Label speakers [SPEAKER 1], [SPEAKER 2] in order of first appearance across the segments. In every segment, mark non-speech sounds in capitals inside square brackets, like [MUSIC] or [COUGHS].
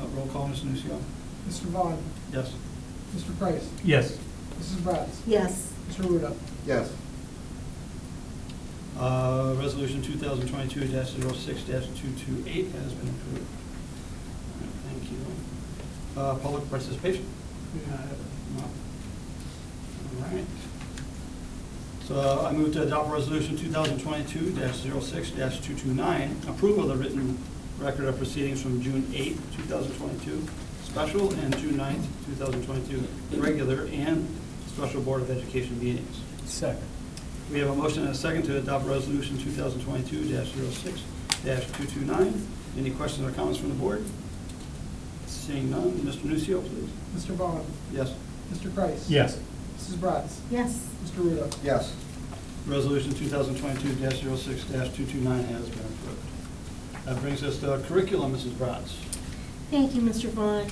[SPEAKER 1] Uh, Roll call, Ms. Nusio.
[SPEAKER 2] Mr. Vaughn,
[SPEAKER 1] Yes.
[SPEAKER 2] Mr. Price,
[SPEAKER 3] Yes.
[SPEAKER 2] Mrs. Bratz,
[SPEAKER 4] yes,
[SPEAKER 2] Mr. Ruda.
[SPEAKER 5] yes,
[SPEAKER 1] Uh, Resolution 2022-06-228 has been approved. All right, Thank you. Uh, Public participation? We
[SPEAKER 2] Uh,
[SPEAKER 1] have none. All right. So uh, I move to adopt Resolution 2022-06-229, approval of the written record of proceedings from June 8, 2022, special, and June 9, 2022, regular and special Board of Education meetings.
[SPEAKER 3] Second.
[SPEAKER 1] We have a motion and a second to adopt Resolution 2022-06-229. Any questions or comments from the board? Seeing none, Mr. Nucio, please.
[SPEAKER 2] Mr. Vaughn,
[SPEAKER 1] Yes.
[SPEAKER 2] Mr. Price.
[SPEAKER 3] Yes.
[SPEAKER 2] Mrs. Bratz,
[SPEAKER 4] yes,
[SPEAKER 2] Mr. Ruda.
[SPEAKER 5] yes,
[SPEAKER 1] Resolution 2022-06-229 has been approved. That brings us to curriculum, Mrs. Bratz.
[SPEAKER 4] thank you, Mr. Vaughn.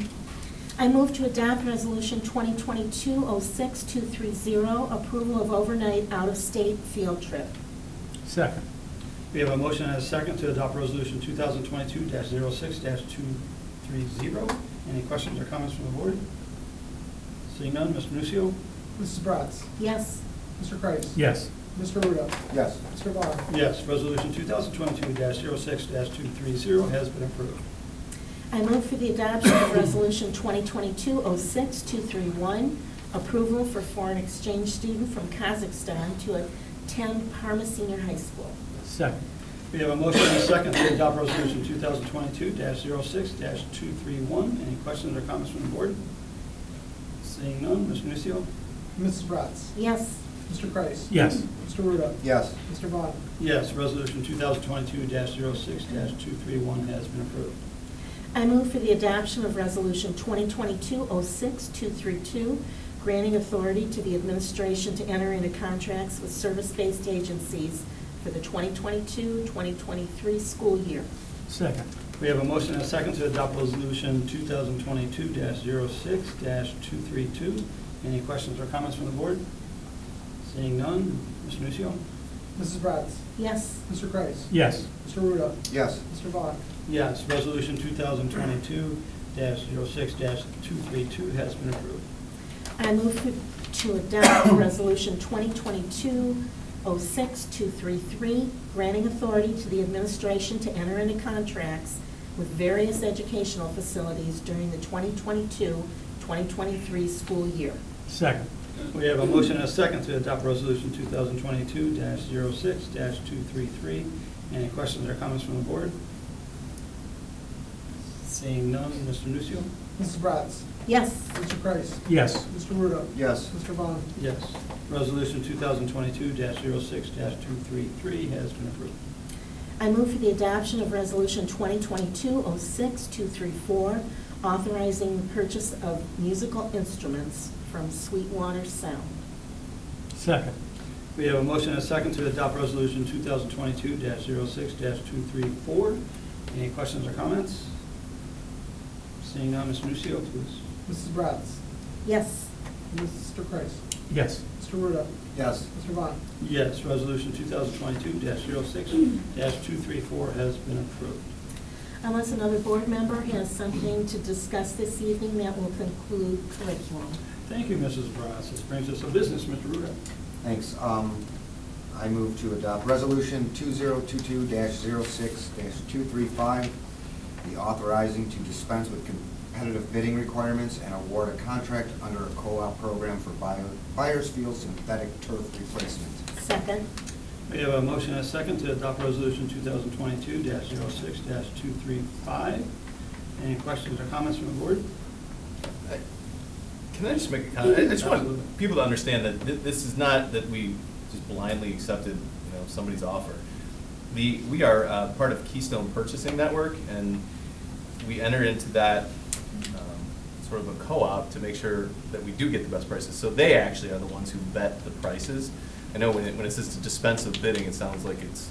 [SPEAKER 4] I move to adopt Resolution 2022-06230, approval of overnight out-of-state field trip.
[SPEAKER 3] Second.
[SPEAKER 1] We have a motion and a second to adopt Resolution 2022-06-230. Any questions or comments from the board? Seeing none, Mr. Nucio.
[SPEAKER 2] Mrs. Bratz,
[SPEAKER 4] Yes,
[SPEAKER 2] Mr. Price.
[SPEAKER 3] Yes.
[SPEAKER 2] Mr. Ruda.
[SPEAKER 5] yes,
[SPEAKER 2] Mr. Vaughn,
[SPEAKER 1] Yes, resolution 2022-06-230 has been approved.
[SPEAKER 4] I move for the adoption of [COUGHS] Resolution 2022-06231, approval for foreign exchange student from Kazakhstan to attend Parma Senior High School.
[SPEAKER 3] Second.
[SPEAKER 1] We have a motion and a second to adopt resolution 2022-06-231. Any questions or comments from the board? Seeing none, Mr. Nucio.
[SPEAKER 2] Mrs. Bratz,
[SPEAKER 4] Yes,
[SPEAKER 2] Mr. Price.
[SPEAKER 3] Yes.
[SPEAKER 2] Mr. Ruda.
[SPEAKER 5] yes,
[SPEAKER 2] Mr. Vaughn,
[SPEAKER 1] Yes, resolution 2022-06-231 has been approved.
[SPEAKER 4] I move for the adoption of Resolution 2022-06232, granting authority to the administration to enter into contracts with service-based agencies for the 2022-2023 school year.
[SPEAKER 3] Second.
[SPEAKER 1] We have a motion and a second to adopt resolution 2022-06-232. Any questions or comments from the board? Seeing none, Mr. Nucio.
[SPEAKER 2] Mrs. Bratz,
[SPEAKER 4] Yes,
[SPEAKER 2] Mr. Price.
[SPEAKER 3] Yes.
[SPEAKER 2] Mr. Ruda.
[SPEAKER 5] yes,
[SPEAKER 2] Mr. Vaughn,
[SPEAKER 1] Yes, resolution 2022-06-232 has been approved.
[SPEAKER 4] I move for- to adopt [COUGHS] Resolution 2022-06233, granting authority to the administration to enter into contracts with various educational facilities during the 2022-2023 school year.
[SPEAKER 3] Second.
[SPEAKER 1] We have a motion and a second to adopt resolution 2022-06-233. Any questions or comments from the board? Seeing none, Mr. Nucio?
[SPEAKER 2] Mrs. Bratz,
[SPEAKER 4] Yes.
[SPEAKER 2] Mr. Price.
[SPEAKER 3] Yes.
[SPEAKER 2] Mr. Ruda.
[SPEAKER 5] yes,
[SPEAKER 2] Mr. Vaughn,
[SPEAKER 1] Yes. Resolution 2022-06-233 has been approved.
[SPEAKER 4] I move for the adoption of Resolution 2022-06234, authorizing the purchase of musical instruments from Sweetwater Sound.
[SPEAKER 3] Second.
[SPEAKER 1] We have a motion and a second to adopt resolution 2022-06-234. Any questions or comments? Seeing none, Mr. Nucio, please.
[SPEAKER 2] Mrs. Bratz,
[SPEAKER 4] Yes.
[SPEAKER 2] Mr. Price.
[SPEAKER 3] Yes.
[SPEAKER 2] Mr. Ruda.
[SPEAKER 5] yes,
[SPEAKER 2] Mr. Vaughn,
[SPEAKER 1] Yes, resolution 2022-06-234 has been approved.
[SPEAKER 4] Unless another board member has something to discuss this evening, that will conclude curriculum.
[SPEAKER 1] Thank you, Mrs. Bratz. This brings us to business, Mr. Ruda.
[SPEAKER 5] thanks. Um, I move to adopt Resolution 2022-06-235, the authorizing to dispense with competitive bidding requirements and award a contract under a co-op program for Buyer- Buyers Field synthetic turf replacement.
[SPEAKER 4] Second?
[SPEAKER 1] We have a motion and a second to adopt resolution 2022-06-235. Any questions or comments from the board?
[SPEAKER 6] Can I just make a comment? I I just
[SPEAKER 1] Absolutely.
[SPEAKER 6] want people to understand that thi- this is not that we just blindly accepted, you know, somebody's offer. The, we are uh, part of Keystone Purchasing Network, and we enter into that um, sort of a co-op to make sure that we do get the best prices. So they actually are the ones who vet the prices. I know when it, when it says to dispense of bidding, it sounds like it's,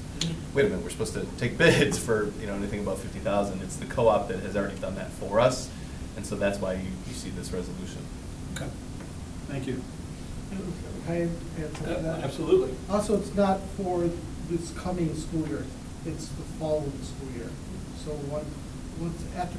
[SPEAKER 6] wait a minute, we're supposed to take bids for, you know, anything above fifty thousand. It's the co-op that has already done that for us, and so that's why you, you see this resolution.
[SPEAKER 1] Okay. Thank you.
[SPEAKER 2] I have something to that.
[SPEAKER 1] Absolutely.
[SPEAKER 2] Also, it's not for this coming school year, it's the following school year. So one, once, after